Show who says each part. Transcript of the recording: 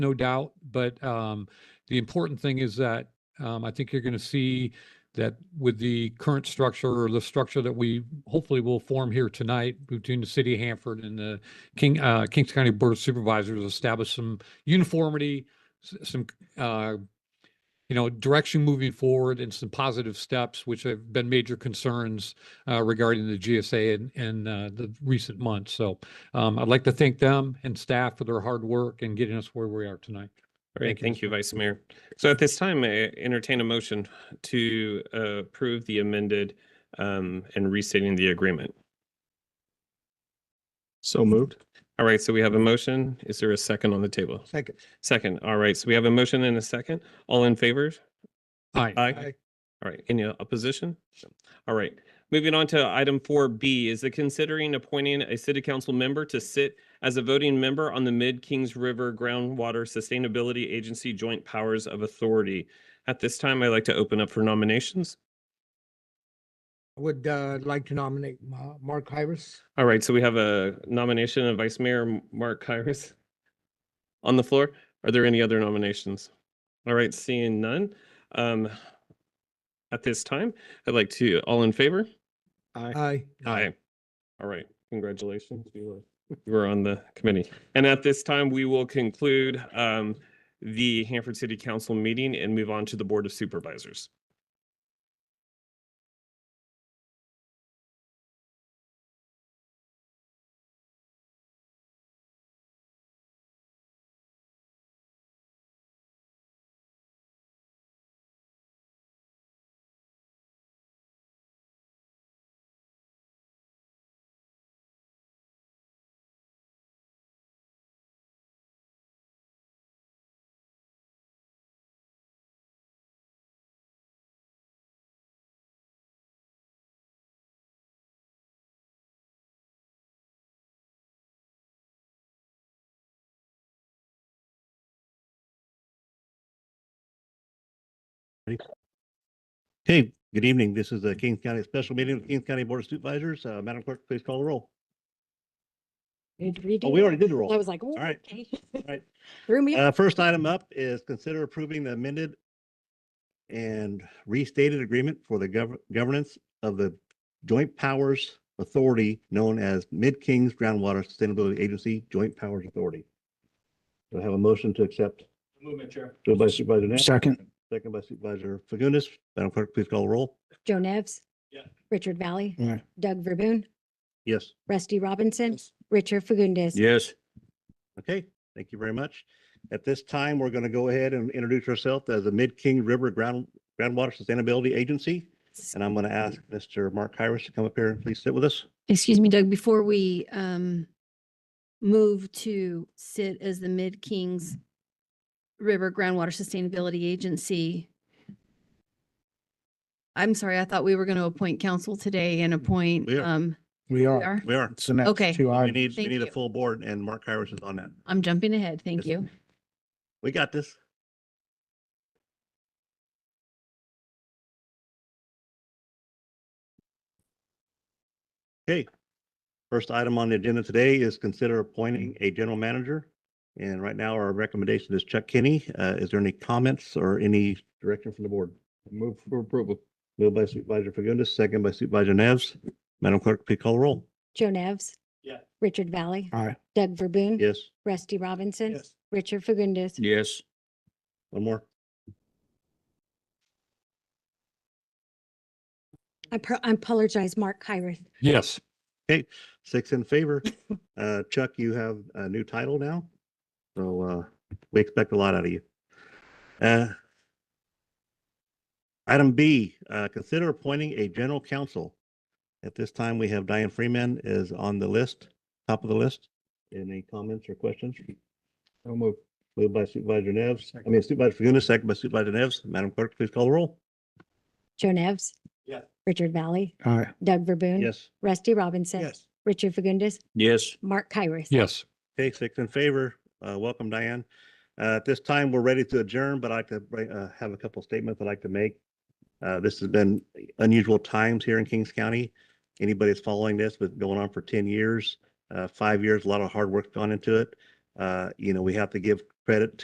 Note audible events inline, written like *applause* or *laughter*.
Speaker 1: no doubt. But um, the important thing is that um, I think you're going to see that with the current structure or the structure that we hopefully will form here tonight between the city of Hanford and the King, uh, Kings County Board of Supervisors, establish some uniformity, s- some, uh, you know, direction moving forward and some positive steps, which have been major concerns uh, regarding the GSA in, in uh, the recent months. So um, I'd like to thank them and staff for their hard work and getting us where we are tonight.
Speaker 2: All right,
Speaker 1: Thank you.
Speaker 2: thank you, Vice Mayor. So at this time, I entertain a motion to uh, approve the amended um, and restating the agreement.
Speaker 3: So moved.
Speaker 2: All right, so we have a motion. Is there a second on the table?
Speaker 3: Second.
Speaker 2: Second, all right, so we have a motion and a second. All in favor?
Speaker 1: Aye.
Speaker 2: Aye. All right, any opposition? All right, moving on to item four B, is the considering appointing a city council member to sit as a voting member on the Mid Kings River Groundwater Sustainability Agency Joint Powers of Authority. At this time, I'd like to open up for nominations.
Speaker 4: I Would uh, like to nominate Ma- Mark Hyrus.
Speaker 2: All right, so we have a nomination of Vice Mayor Mark Kyrus on the floor. Are there any other nominations? All right, seeing none. Um, at this time, I'd like to, all in favor?
Speaker 3: Aye.
Speaker 4: Aye.
Speaker 2: Aye. All right, congratulations. You were, *laughs* you were on the committee. And at this time, we will conclude um, the Hanford City Council meeting and move on to the Board of Supervisors.
Speaker 5: Hey, good evening. This is the Kings County Special Meeting of the Kings County Board of Supervisors. Uh, Madam Clerk, please call the roll. Oh, we already did the roll.
Speaker 6: I was like, all
Speaker 5: right.
Speaker 6: right.
Speaker 5: right.
Speaker 6: *laughs* Threw me. off.
Speaker 5: Uh, first item up is consider approving the amended and restated agreement for the gov- governance of the Joint Powers Authority known as Mid-Kings Groundwater Sustainability Agency Joint Powers Authority. Do I have a motion to accept? Movement, Chair. by Supervisor Nat,
Speaker 3: Second.
Speaker 5: second by Supervisor Fagundes. Madam Clerk, please call the roll.
Speaker 6: Joe Nevs. Richard Valley.
Speaker 3: Aye.
Speaker 6: Doug Verboon.
Speaker 5: Yes.
Speaker 6: Rusty Robinson. Richard Fagundes.
Speaker 3: Yes.
Speaker 5: Okay, thank you very much. At this time, we're going to go ahead and introduce ourselves as the Mid-King River Ground Groundwater Sustainability Agency. And I'm going to ask Mr. Mark Hires to come up here and please sit with us.
Speaker 7: Excuse me, Doug, before we um move to sit as the Mid Kings River Groundwater Sustainability Agency. I'm sorry, I thought we were going to appoint council today and appoint
Speaker 5: We are.
Speaker 7: um,
Speaker 3: We
Speaker 7: we
Speaker 3: are.
Speaker 7: are.
Speaker 5: We are,
Speaker 3: It's the next
Speaker 7: Okay.
Speaker 3: two
Speaker 5: we
Speaker 3: items.
Speaker 5: need, we
Speaker 7: Thank
Speaker 5: need a
Speaker 7: you.
Speaker 5: full board and Mark Hires is on that.
Speaker 7: I'm jumping ahead. Thank
Speaker 5: Yes.
Speaker 7: you.
Speaker 5: We got this. Okay. First item on the agenda today is consider appointing a general manager. And right now our recommendation is Chuck Kinney. Uh, is there any comments or any direction from the board? Move for approval. Moved by Supervisor Fagundes, second by Supervisor Neves. Madam Clerk, please call the roll.
Speaker 6: Joe Nevs.
Speaker 2: Yeah.
Speaker 6: Richard Valley.
Speaker 3: Aye.
Speaker 6: Doug Verboon.
Speaker 5: Yes,
Speaker 6: Rusty Robinson.
Speaker 3: Yes.
Speaker 6: Richard Fagundes.
Speaker 3: Yes.
Speaker 5: one more.
Speaker 6: I pro- I apologize, Mark Hyrus.
Speaker 1: Yes.
Speaker 5: Six in favor. Uh, Chuck, you have a new title now. So, uh, we expect a lot out of you. Uh, Item B, uh, consider appointing a general counsel. At this time, we have Diane Freeman is on the list, top of the list. Any comments or questions? No move. Moved by Supervisor Neves, I mean Supervisor Fagundes, second by Supervisor Neves. Madam Clerk, please call the roll.
Speaker 6: Joe Nevs. Yeah. Richard Valley.
Speaker 3: Aye.
Speaker 6: Doug Verboon.
Speaker 5: Yes.
Speaker 6: Rusty Robinson.
Speaker 3: Yes.
Speaker 6: Richard Fagundes.
Speaker 3: Yes.
Speaker 6: Mark Hyrus.
Speaker 1: Yes.
Speaker 5: Okay, six in favor. Uh, welcome, Diane. Uh, at this time, we're ready to adjourn, but I'd like to bring- uh, have a couple statements I'd like to make. Uh, this has been unusual times here in Kings County. Anybody that's following this, but going on for ten years, uh, five years, a lot of hard work gone into it. Uh, you know, we have to give credit